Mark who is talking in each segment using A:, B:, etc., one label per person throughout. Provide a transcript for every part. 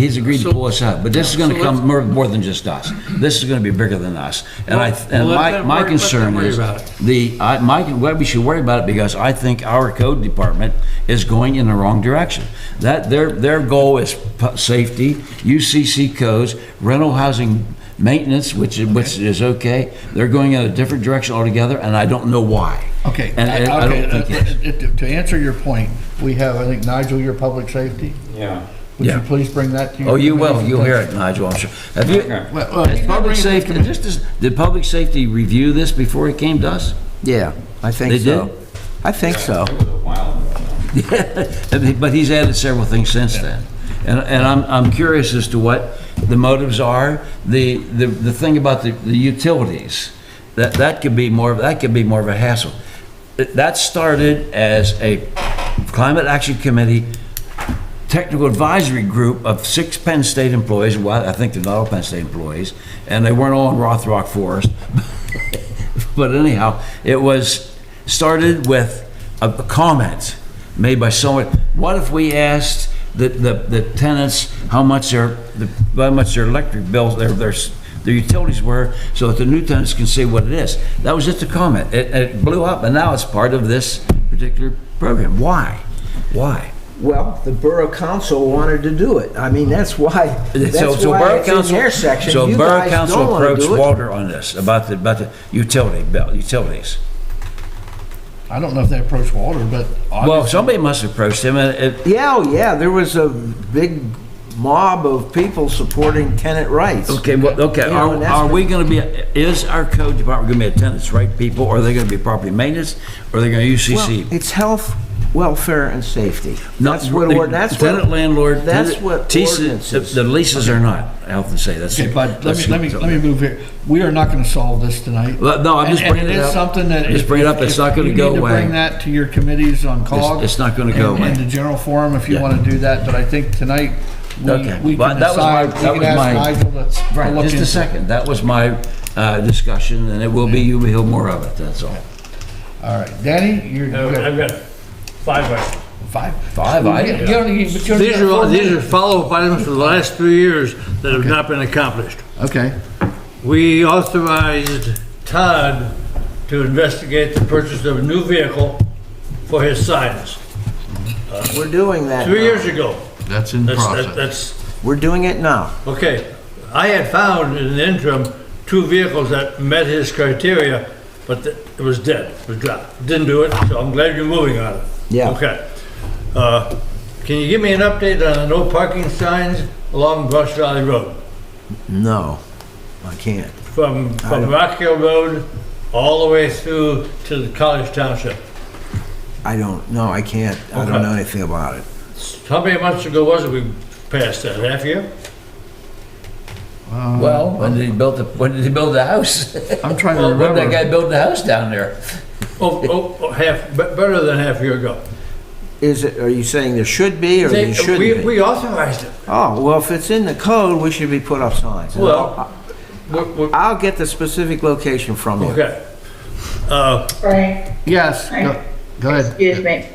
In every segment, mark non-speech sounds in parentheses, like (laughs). A: He's agreed to pull us out, but this is gonna
B: So let's-
A: come more, more than just us. This is gonna be bigger than us. And I, and
B: Well, let
A: my,
B: them
A: my
B: worry- let them
A: concern
B: worry
A: is,
B: about it.
A: the, I, my, what we should worry about it because I think our code department is going in the wrong direction. That, their, their goal is pu- safety, UCC codes, rental housing maintenance, which, is- which is okay. They're going in a different direction altogether, and I don't know why.
C: Okay.
A: And and I
C: okay,
A: don't think
C: uh,
B: (laughs)
A: it's.
C: uh, To to answer your point, we have, I think, Nigel, your public safety.
D: Yeah.
C: Would
A: Yeah.
C: you please bring that to your?
A: Oh, you will,
C: committee?
A: you'll hear it, Nigel, I'm sure. Have you,
D: Okay.
C: Well, well,
A: Did
C: he's not
A: public
C: bringing it to
A: safety,
C: the committee.
A: just as- did public safety review this before it came to us? (laughs)
E: Yeah, I think
A: They
E: so.
A: did?
E: I think so.
D: It was a while ago.
A: But he's added several things since then. And, and I'm, I'm curious as to what the motives are. The, the, the thing about the, the utilities, that, that could be more, that could be more of a hassle. That- That started as a climate action committee technical advisory group of six Penn State employees, well, I think they're not all Penn State employees, and they weren't all in Rothrock Forest. (laughs) But anyhow, it was started with a a comment made by someone. What if we asked the, the, the tenants how much their, the, how much their electric bills, their, their, s- their utilities were, so that the new tenants can see what it is? That was just a comment. It, it blew up, and now it's part of this particular program. Why? Why?
E: Well, the borough council wanted to do it. I mean, that's why,
A: (laughs) So,
E: that's
A: so
E: why
A: Borough
E: it's in
A: Council.
E: their section.
A: So
E: You
A: Borough
E: guys
A: Council
E: don't wanna
A: approached
E: do it.
A: Walter on this, about the, about the utility bill, utilities.
C: I don't know if they approached Walter, but
A: Well,
C: obviously,
A: somebody must have approached him, and it,
E: Yeah, oh, yeah, there was a big mob of people supporting tenant rights.
A: okay, well, okay,
E: You know,
A: are,
E: and that's
A: are
E: what-
A: we gonna be, is our code department gonna be a tenants' right people, or are they gonna be property maintenance, or are they gonna
E: Well,
A: UCC?
E: It's health, welfare, and safety.
A: No,
E: That's what,
A: the
E: or- that's what.
A: Tenant landlord.
E: That's
A: tenant-
E: what
A: TC
E: ordinance is.
A: The leases are not, I often say, that's.
C: okay, bud, let me,
A: that's-
C: let me, let me move here. We are not going to solve this tonight.
A: Well, no, I'm
C: And-
A: just bringing
C: And
A: it
C: it
A: up.
C: is something that.
A: Just
C: if-
A: bring it up.
C: if-
A: It's not
C: if
A: gonna
C: you
A: go
C: need to
A: away.
C: Bring that to your committees on COG.
A: it's not gonna go
C: and- And
A: away.
C: the general forum, if you
A: Yeah.
C: want to do that, but I think tonight, we
A: Okay.
C: we
A: Well,
C: can
A: that was my-
C: decide,
A: that
C: we can
A: was my-
C: ask Nigel to- to
A: Right,
C: look
A: just
C: into
A: a
C: it.
A: second, that was my, uh, discussion, and it will be, you'll hear more of it, that's all.
C: All right, Danny, you're.
F: No,
C: you're-
F: I've got five questions.
C: Five.
A: Five items.
C: You don't need- but you only
B: These
C: got
B: are, all-
C: four
B: these are
C: minutes.
B: follow-up items for the last three years that have not been accomplished.
C: Okay,
B: We authorized Todd to investigate the purchase of a new vehicle for his signs.
E: We're doing that
B: Three
E: now.
B: years ago.
C: Uh, that's in
B: That's, that-
C: process.
B: that's,
E: We're doing it now.
B: okay. I had found in the interim two vehicles that met his criteria, but th- it was dead, it was dropped. Didn't do it, so I'm glad you're moving on it.
E: Yeah.
B: Okay. Uh, Can you give me an update on the no parking signs along Brush Valley Road?
E: No, I can't.
B: from, from Rock Hill Road all the way through to the College Township.
E: I don't, no, I can't. I don't
B: Okay.
E: know anything about it.
B: How many months ago was it we passed that, half year?
A: Well, when did he build the, when did he build the house? (laughs)
C: I'm trying to
A: When did that
C: remember.
A: guy build the house down there?
B: Oh, oh, oh, half, be- better than half year ago.
E: Is it, are you saying there should be or
B: They-
E: there shouldn't
B: we-
E: be?
B: We authorized it.
E: Oh, well, if it's in the code, we should be put up signs. And
B: Well-
E: I'll-
B: We're- we're-
E: I'll get the specific location from you.
B: Okay. Uh,
G: Frank,
C: Yes, go- go
G: excuse
C: ahead.
G: me.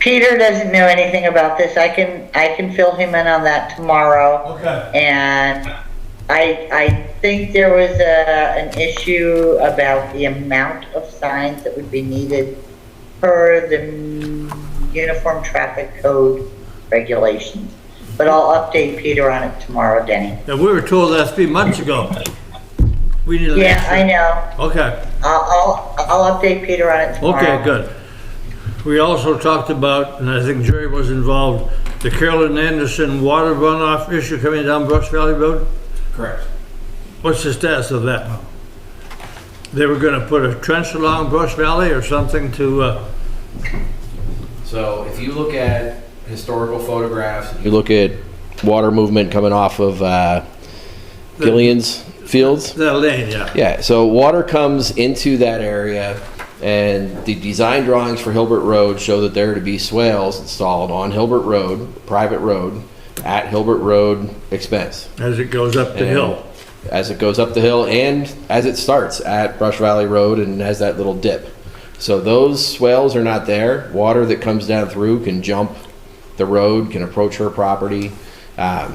G: Peter doesn't know anything about this. I can, I can fill him in on that tomorrow.
B: Okay.
G: And I, I think there was a, an issue about the amount of signs that would be needed per the Uniform Traffic Code regulations. But I'll update Peter on it tomorrow, Denny.
B: And we were told that three months ago. We need an
G: Yeah, I
B: answer.
G: know.
B: Okay,
G: I'll, I'll, I'll update Peter on it tomorrow.
B: okay, good. We also talked about, and I think Jerry was involved, the Carolyn Anderson water runoff issue coming down Brush Valley Road?
D: Correct.
B: What's the status of that? They were gonna put a trench along Brush Valley or something to, uh,
H: So if you look at historical photographs, you look at water movement coming off of uh, Gillian's Fields.
B: that lane, yeah.
H: Yeah, so water comes into that area, and the design drawings for Hilbert Road show that there are to be swales installed on Hilbert Road, private road, at Hilbert Road expense.
B: As it goes up the
H: And
B: hill.
H: As it goes up the hill and as it starts at Brush Valley Road and has that little dip. So those swales are not there. Water that comes down through can jump the road, can approach her property. Um,